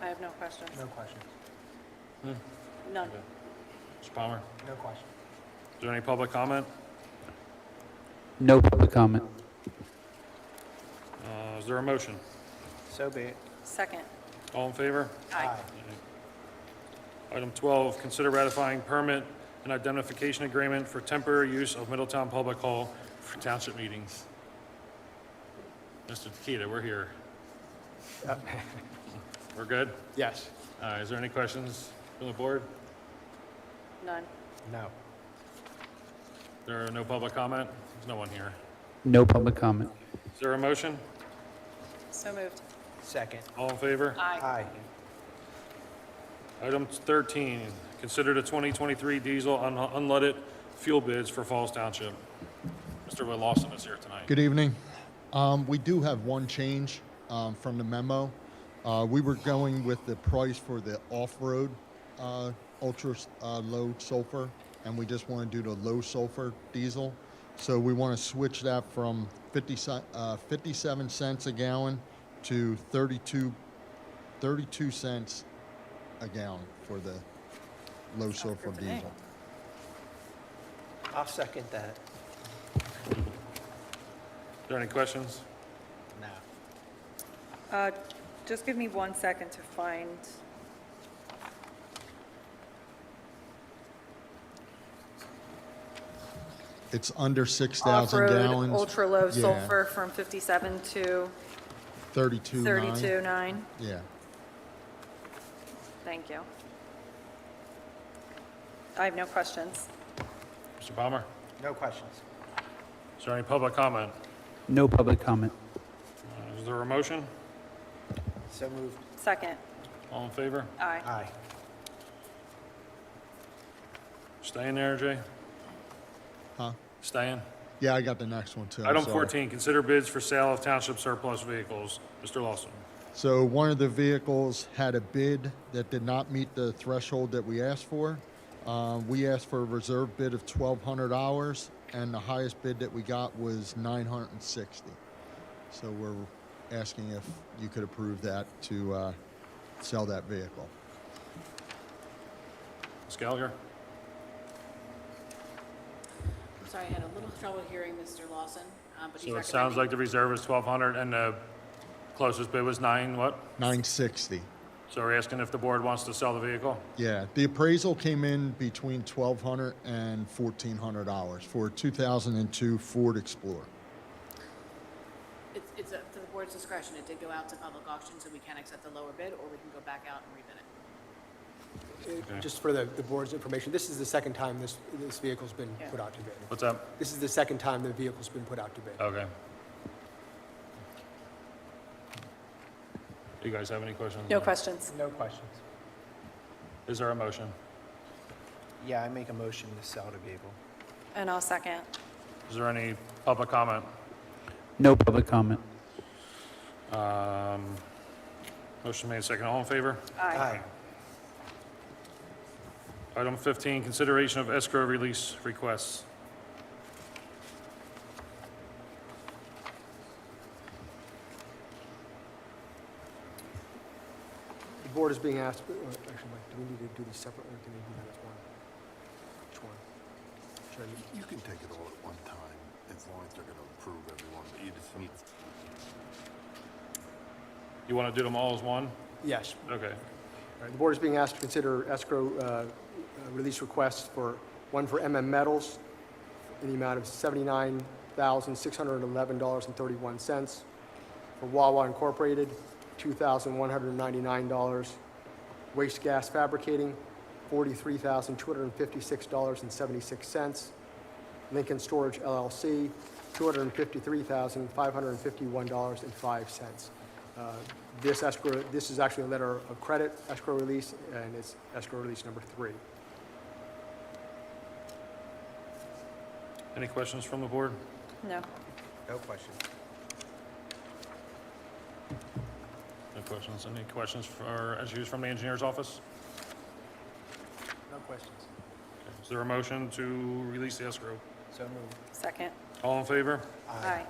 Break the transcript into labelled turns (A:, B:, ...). A: I have no questions.
B: No questions.
A: None.
C: Mr. Palmer,
B: No questions.
C: is there any public comment?
D: No public comment.
C: Uh, Is there a motion?
B: So be it.
A: Second.
C: All in favor?
A: Aye.
C: Item 12, consider ratifying permit and indemnification agreement for temporary use of Middletown Public Hall for township meetings. Mr. Tequita, we're here. We're good?
B: Yes.
C: Uh, Is there any questions from the board?
A: None.
B: No.
C: There are no public comment? There's no one here.
D: No public comment.
C: Is there a motion?
A: So moved.
B: Second.
C: All in favor?
A: Aye.
B: Aye.
C: Item 13, consider the 2023 diesel un- unleaded fuel bids for Falls Township. Mr. Will Lawson is here tonight.
E: Good evening. Um, we do have one change um, from the memo. Uh, we were going with the price for the off-road uh, ultra uh, low sulfur, and we just want to do the low sulfur diesel. So we want to switch that from 50, ce- uh, 57 cents a gallon to 32, 32 cents a gallon for the low sulfur
A: to me.
E: diesel.
B: I'll second that.
C: Are there any questions?
B: No.
A: Uh, Just give me one second to find.
E: It's under 6,000
A: Off-road
E: gallons.
A: ultra-low
E: Yeah,
A: sulfur from 57 to
E: 32.9.
A: 32.9.
E: Yeah.
A: Thank you. I have no questions.
C: Mr. Palmer?
B: No questions.
C: Is there any public comment?
D: No public comment.
C: Uh, Is there a motion?
B: So moved.
A: Second.
C: All in favor?
A: Aye.
B: Aye.
C: Staying there, Jay?
E: Huh?
C: Staying?
E: Yeah, I got the next one too. I'm
C: Item
E: sorry.
C: 14, consider bids for sale of township surplus vehicles. Mr. Lawson?
E: So one of the vehicles had a bid that did not meet the threshold that we asked for. Um, we asked for a reserve bid of twelve hundred dollars, and the highest bid that we got was nine hundred and sixty. So we're asking if you could approve that to uh, sell that vehicle.
C: Ms. Gallagher?
F: I'm sorry, I had a little trouble hearing Mr. Lawson, um, but he's
C: So
F: recommending.
C: it sounds like the reserve is 1,200 and the closest bid was nine, what?
E: Nine sixty.
C: So we're asking if the board wants to sell the vehicle?
E: Yeah, the appraisal came in between twelve hundred and fourteen hundred dollars for a two thousand and two Ford Explorer.
F: It's, it's up to the board's discretion. It did go out to public auction, so we can accept the lower bid, or we can go back out and rebid it.
G: Just for the, the board's information, this is the second time this, this vehicle's been put out to bid.
C: What's that?
G: This is the second time the vehicle's been put out to bid.
C: Okay. Do you guys have any questions?
A: No questions.
B: No questions.
C: Is there a motion?
B: Yeah, I make a motion to sell the vehicle.
A: And I'll second.
C: Is there any public comment?
D: No public comment.
C: Um, Motion made second. All in favor?
A: Aye.
C: Item 15, consideration of escrow release requests.
G: The board is being asked, or actually, Mike, do we need to do these separately, or can we do that as one? Which one? Should I do-
H: You can take it all at one time, as long as they're gonna approve everyone, but you just need
C: You want to do them all as one?
G: Yes.
C: Okay.
G: All right, The board is being asked to consider escrow uh, uh, release requests for, one for MM Metals in the amount of $79,611.31. For Wawa Incorporated, $2,199. Waste Gas Fabricating, $43,256.76. Lincoln Storage LLC, $253,551.05. Uh, This escrow, this is actually a letter of credit escrow release, and it's escrow release number three.
C: Any questions from the board?
A: No.
B: No questions.
C: No questions. Any questions for, as used from the engineer's office?
B: No questions.
C: Is there a motion to release the escrow?
B: So moved.
A: Second.
C: All in favor?
A: Aye.